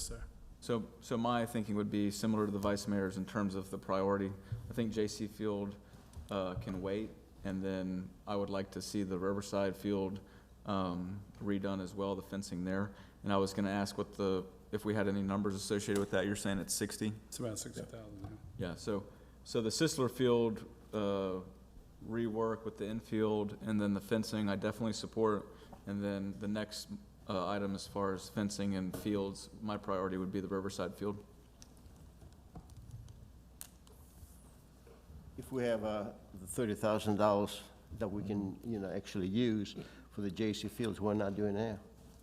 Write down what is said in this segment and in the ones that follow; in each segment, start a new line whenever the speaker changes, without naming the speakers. sir.
So, so my thinking would be similar to the vice mayor's in terms of the priority. I think J.C. Field uh, can wait, and then I would like to see the Riverside Field um, redone as well, the fencing there. And I was going to ask what the, if we had any numbers associated with that. You're saying it's 60?
It's about sixty thousand now.
Yeah, so, so the Sisler Field uh, rework with the infield and then the fencing, I definitely support. And then the next uh, item as far as fencing and fields, my priority would be the Riverside Field.
If we have uh, the thirty thousand dollars that we can, you know, actually use for the J.C. Fields, why not doing that?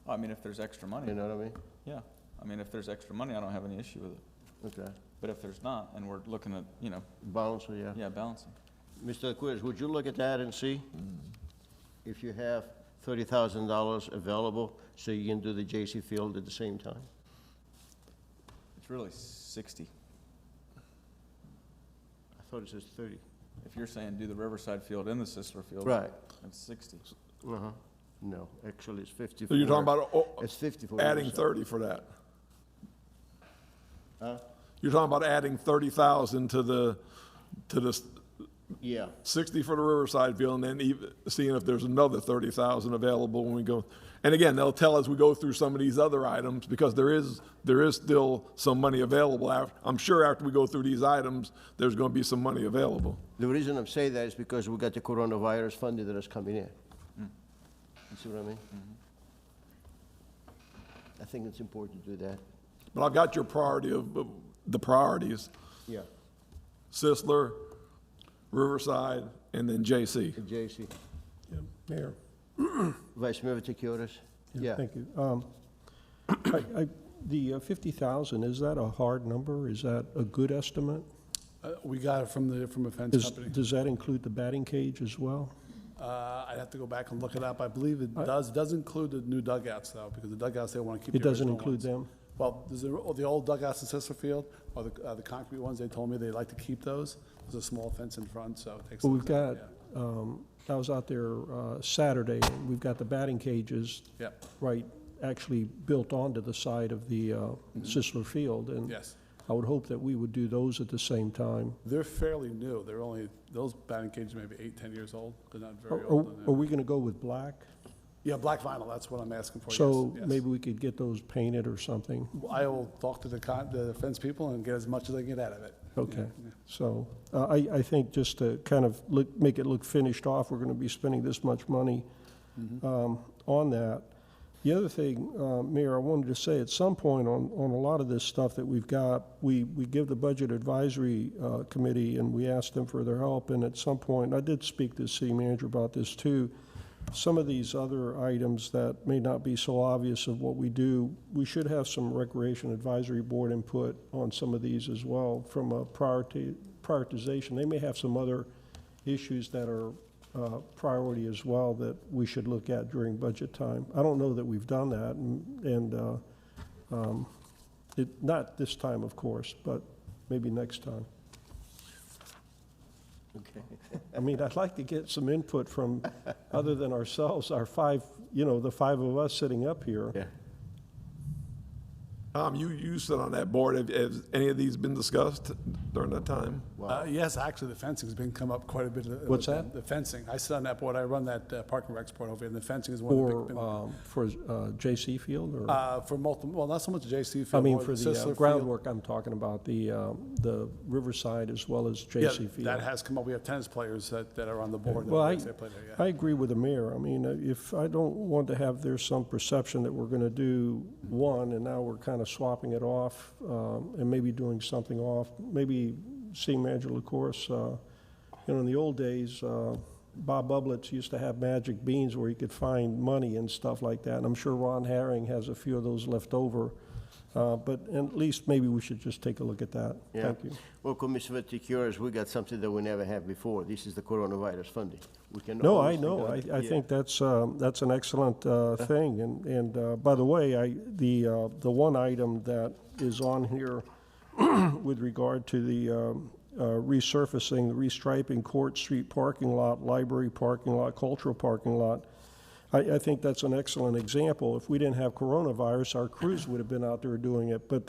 I mean, if there's extra
You
money,
know what I mean?
yeah. I mean, if there's extra money, I don't have any issue with it.
Okay,
But if there's not, and we're looking at, you know,
balance, yeah.
yeah, balancing.
Mr. Quiz, would you look at that and see if you have thirty thousand dollars available so you can do the J.C. Field at the same time?
It's really sixty.
I thought it says thirty.
If you're saying do the Riverside Field and the Sisler Field.
Right,
It's sixty.
uh-huh. No, actually, it's fifty-four.
So you're talking about oh,
It's fifty-four.
adding
years.
thirty for that?
Huh?
You're talking about adding thirty thousand to the, to the s-
Yeah,
sixty for the Riverside Field and then even, seeing if there's another thirty thousand available when we go. And again, they'll tell us we go through some of these other items because there is, there is still some money available. af- I'm sure after we go through these items, there's gonna be some money available.
the reason I'm saying that is because we got the coronavirus funding that is coming in. You see what I mean? I think it's important to do that.
But I've got your priority of, of the priorities,
Yeah.
Sisler, Riverside, and then J.C.
The J.C.
Mayor,
Vice Mayor Vaticius? Yeah.
thank you. Um, I- I- The uh, 50,000, is that a hard number? Is that a good estimate?
Uh, we got it from the, from a fence
Is-
company.
Does that include the batting cage as well?
Uh, I'd have to go back and look it up. I believe it
I-
does, does include the new dugouts though, because the dugouts, they want to keep.
It
the
doesn't
original
include
ones.
them?
Well, there's the, oh, the old dugouts in Sisseton Field, or the, uh, the concrete ones, they told me they like to keep those. There's a small fence in front, so it takes.
Well, we've
those out,
got, um, I was out there uh, Saturday, and we've got the batting cages
Yeah, Yep,
right, actually built onto the side of the uh, Sisler Field. And
Mm-hmm. yes.
I would hope that we would do those at the same time.
They're fairly new. They're only, those batting cages may be eight, 10 years old. They're not
Are
very
are-
old.
are
they're-
we going to go with black?
Yeah, black vinyl, that's what I'm asking for. yes,
So
yes.
maybe we could get those painted or something?
I will talk to the con, the fence people and get as much as I can get out of it.
Okay,
Yeah.
so uh, I, I think just to kind of look, make it look finished off, we're going to be spending this much money um, on that. The other thing, uh, Mayor, I wanted to say, at some point on, on a lot of this stuff that we've got, we, we give the Budget Advisory uh, Committee and we ask them for their help, and at some point, I did speak to the city manager about this too, some of these other items that may not be so obvious of what we do, we should have some Recreation Advisory Board input on some of these as well from a priority, prioritization. They may have some other issues that are uh, priority as well that we should look at during budget time. I don't know that we've done that, and, and uh, um, it, not this time, of course, but maybe next time.
Okay.
I mean, I'd like to get some input from, other than ourselves, our five, you know, the five of us sitting up here.
Yeah.
Tom, you, you sit on that board. Have, has any of these been discussed during that time?
Uh, yes, actually, the fencing's been come up quite a bit. uh,
What's that?
The fencing. I sit on that board. I run that uh, park and recs board over here, and the fencing is one of the
For,
big.
um, for uh, J.C. Field, or,
Uh, for multiple, well, not so much J.C.
I
Field.
mean,
more
for
Sisler
the uh,
Field.
groundwork I'm talking about, the, um, the Riverside as well as
Yeah,
J.C.
that
Field.
has come up. We have tennis players that, that are on the board. that
Well, I,
they play there, yeah.
I agree with the mayor. I mean, uh, if, I don't want to have, there's some perception that we're gonna do one, and now we're kind of swapping it off, um, and maybe doing something off. Maybe seeing Manager LaCourse, uh, you know, in the old days, uh, Bob Bublitz used to have magic beans where he could find money and stuff like that, and I'm sure Ron Herring has a few of those left over. Uh, But at least maybe we should just take a look at that.
Yeah.
Thank you.
Well, Commissioner Vaticius, we got something that we never had before. This is the coronavirus funding. We can.
No, I
always
know. I,
think of-
I
Yeah.
think that's, um, that's an excellent uh, thing. And, and uh, by the way, I, the, uh, the one item that is on here with regard to the um, uh, resurfacing, restriping Court Street parking lot, library parking lot, cultural parking lot, I, I think that's an excellent example. If we didn't have coronavirus, our crews would have been out there doing it, but